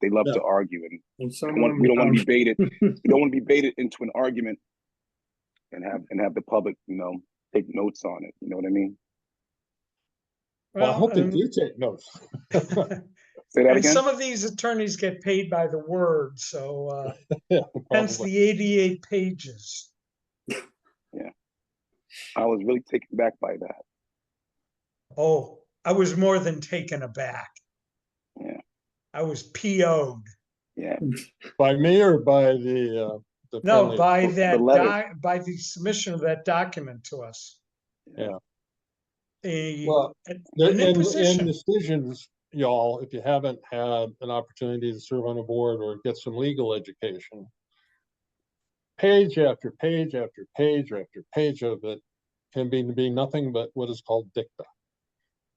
They love Yeah. to argue, and And we some don't want, of we don't want to be them, um, baited. we don't want to be baited into an argument, and have and have the public, you know, take notes on it. You know what I mean? Well, I hope they and- do take notes. Say that And again. some of these attorneys get paid by the word, so uh, hence Probably. the eighty-eight pages. I was really taken back by that. Oh, I was more than taken aback. Yeah. I was PO'd. Yeah, By me or by the, uh? the No, friendly- by the that, letter. doc- by the submission of that document to us. Yeah. A, Well, an The- an And, and imposition. decisions, y'all, if you haven't had an opportunity to serve on a board or get some legal education, page after page after page after page of it can be, be nothing but what is called dicta.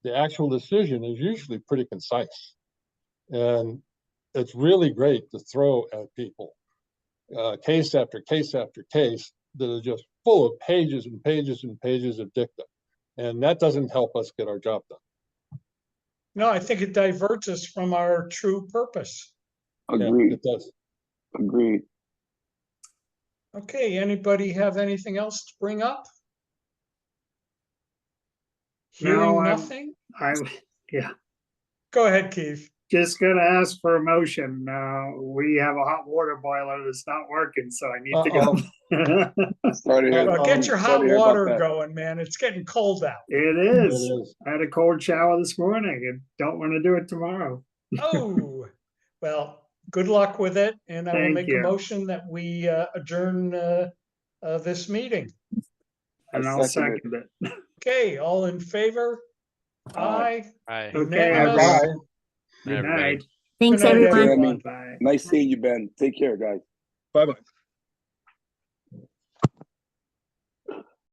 The actual decision is usually pretty concise. And it's really great to throw at people. Uh, case after case after case that are just full of pages and pages and pages of dicta. And that doesn't help us get our job done. No, I think it diverts us from our true purpose. Yeah, agreed, It does. agreed. Okay, anybody have anything else to bring up? No, Hearing I'm- nothing? I'm Go ahead, Keith. just gonna ask for a motion. Uh, we have a hot water boiler that's not working, so I need to go. Sorry to hear- Well, um, get your hot sorry to hear about water that. going, man. It's getting cold out. It It is. is. I had a cold shower this morning and don't want to do it tomorrow. Oh, well, good luck with it. And I will Thank make a you. motion that we uh, adjourn uh, uh, this meeting. I And I'll second it. second it. Okay, all in favor? Aye. Aye. Hi. Okay, Unanimous. everybody. Everybody. Good night. Thanks, Good night, everyone. everyone. Bye. Nice seeing you, Ben. Take care, guys. Bye-bye.